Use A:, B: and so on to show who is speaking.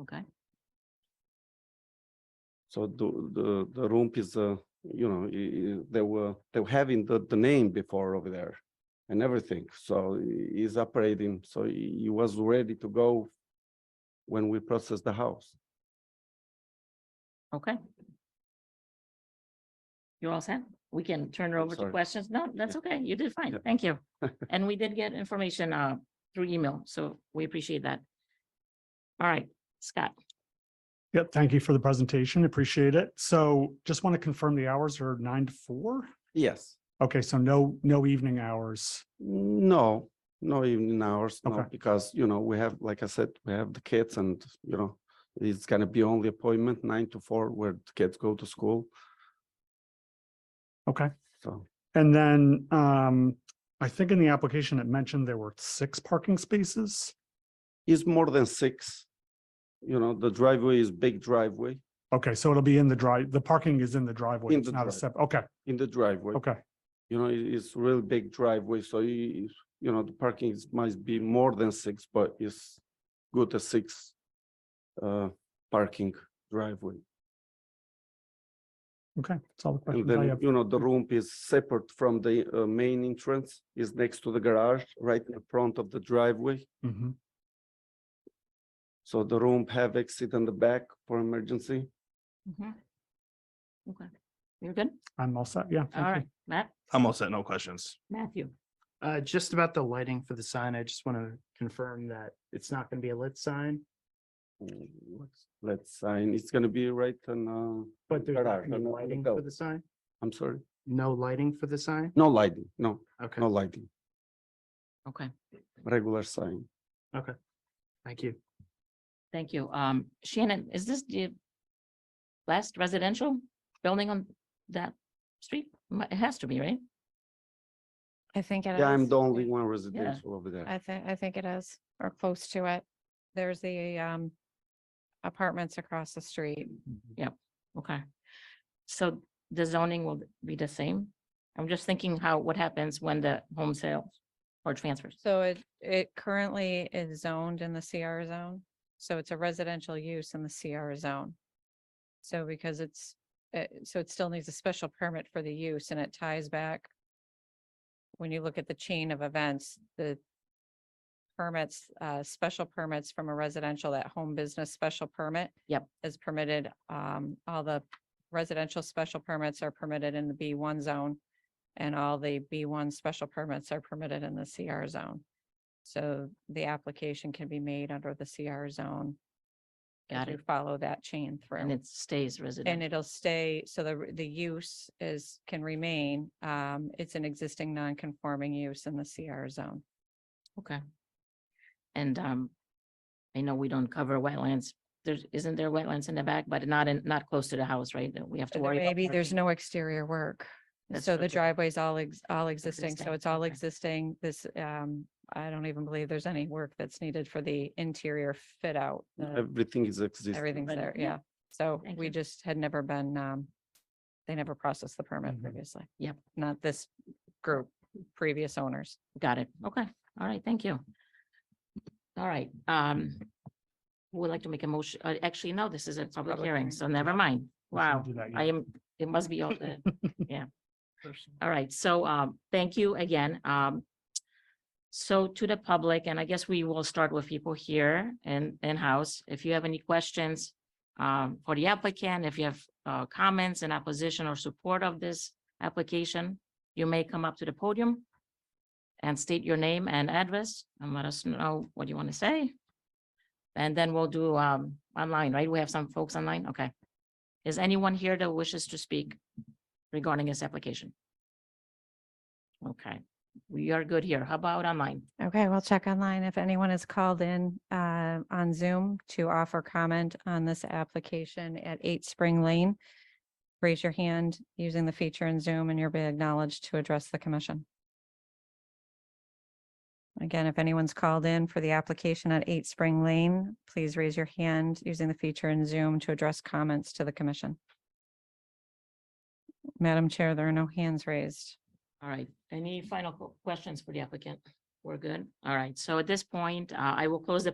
A: Okay,
B: So the, the, the rump is, uh, you know, i- i- they were, they were having the, the name before over there and everything. So i- is operating, so he he was ready to go when we processed the house.
A: okay. You're all set? We can turn it over to
B: Sorry.
A: questions? No, that's
B: Yeah.
A: okay. You did fine.
B: Yeah.
A: Thank you. And we did get information uh through email, so we appreciate that. All right, Scott,
C: Yep, thank you for the presentation. Appreciate it. So just want to confirm the hours are nine to four?
B: Yes,
C: Okay, so no, no evening hours.
B: no, no evening hours, no,
C: Okay.
B: because, you know, we have, like I said, we have the kids and, you know, it's gonna be only appointment nine to four where the kids go to school,
C: Okay.
B: so.
C: And then um, I think in the application it mentioned there were six parking spaces.
B: It's more than six. You know, the driveway is big driveway
C: Okay, so it'll be in the drive, the parking is in the driveway.
B: In
C: It's
B: the
C: not a
B: drive.
C: step. Okay,
B: in the driveway.
C: okay,
B: You know, it- it's real big driveway, so you, you know, the parking is, might be more than six, but it's good as six. Uh, parking driveway.
C: okay. That's all the
B: And
C: questions I
B: then,
C: have.
B: you know, the room is separate from the uh, main entrance, is next to the garage, right in front of the driveway.
C: Mhm.
B: So the room have exit on the back for emergency.
C: Mm-hmm.
A: Mhm. Okay, you're good?
C: I'm all set. Yeah.
A: All
C: thank you.
A: right, Matt,
D: I'm all set, no questions.
A: Matthew,
E: Uh, just about the lighting for the sign, I just want to confirm that it's not going to be a lit sign,
B: Let's- Let's sign, it's gonna be right on, uh,
E: but there's not
B: garage,
E: gonna be
B: on the- on the
E: lighting
B: go.
E: for the sign?
B: I'm sorry,
E: No lighting for the sign?
B: no lighting, no,
E: Okay,
B: no lighting,
A: okay,
B: regular sign.
E: thank you.
A: thank you. Um, Shannon, is this the last residential building on that street? Mi- It has to be, right?
F: I think it is.
B: Yeah, I'm the only
F: yeah.
B: one residential over there.
F: I think, I think it is, or close to it. There's the um apartments across the street.
A: Okay. So the zoning will be the same? I'm just thinking how, what happens when the home sales or transfers?
F: So it, it currently is zoned in the CR zone. So it's a residential use in the CR zone. So because it's, uh, so it still needs a special permit for the use and it ties back. When you look at the chain of events, the permits, uh, special permits from a residential, that home business special permit.
A: Yep.
F: Is permitted, um, all the residential special permits are permitted in the B one zone. And all the B one special permits are permitted in the CR zone. So the application can be made under the CR zone. if
A: Got
F: you
A: it.
F: Follow that chain
A: And
F: through.
A: it stays
F: And
A: residential.
F: it'll stay, so the, the use is, can remain, um, it's an existing non-conforming use in the CR zone.
A: Okay. And um, I know we don't cover wetlands. There's, isn't there wetlands in the back, but not in, not close to the house, right? That we have to worry. about
F: Maybe there's
A: parking.
F: no exterior work.
A: That's
F: So
A: true,
F: the
A: too.
F: driveway's all, ex- all existing,
A: Existing,
F: so it's all
A: okay.
F: existing. This, um, I don't even believe there's any work that's needed for the interior fit out. the-
B: Everything is existing.
F: Everything's
A: But-
F: there,
A: yeah.
F: yeah. So
A: Thank
F: we
A: you.
F: just had never been, um, they never processed the permit
A: Mm-hmm.
C: Mhm.
F: previously.
A: Yep.
F: Not this group, previous owners.
A: Got it. Okay. All right. Thank you. All right. Um, who would like to make a motion. Uh, Actually, no, this is a public
E: public
A: hearing,
E: hearing.
A: so never mind.
C: We shouldn't
A: Wow.
C: do that yet.
A: I am, it must be all the All right, so um, thank you again. Um, so to the public, and I guess we will start with people here and in-house. If you have any questions um, for the applicant, if you have uh, comments in opposition or support of this application, you may come up to the podium and state your name and address and let us know what you want to say. And then we'll do um, online, right? We have some folks online. Okay. Is anyone here that wishes to speak regarding this application? Okay, we are good here. How about online?
F: Okay, we'll check online if anyone is called in, uh, on Zoom to offer comment on this application at Eight Spring Lane. Raise your hand using the feature in Zoom and you'll be acknowledged to address the commission. Again, if anyone's called in for the application at Eight Spring Lane, please raise your hand using the feature in Zoom to address comments to the commission. Madam Chair, there are no hands raised.
A: All right, any final qu- questions for the applicant? We're good. All right, so at this point, uh, I will close the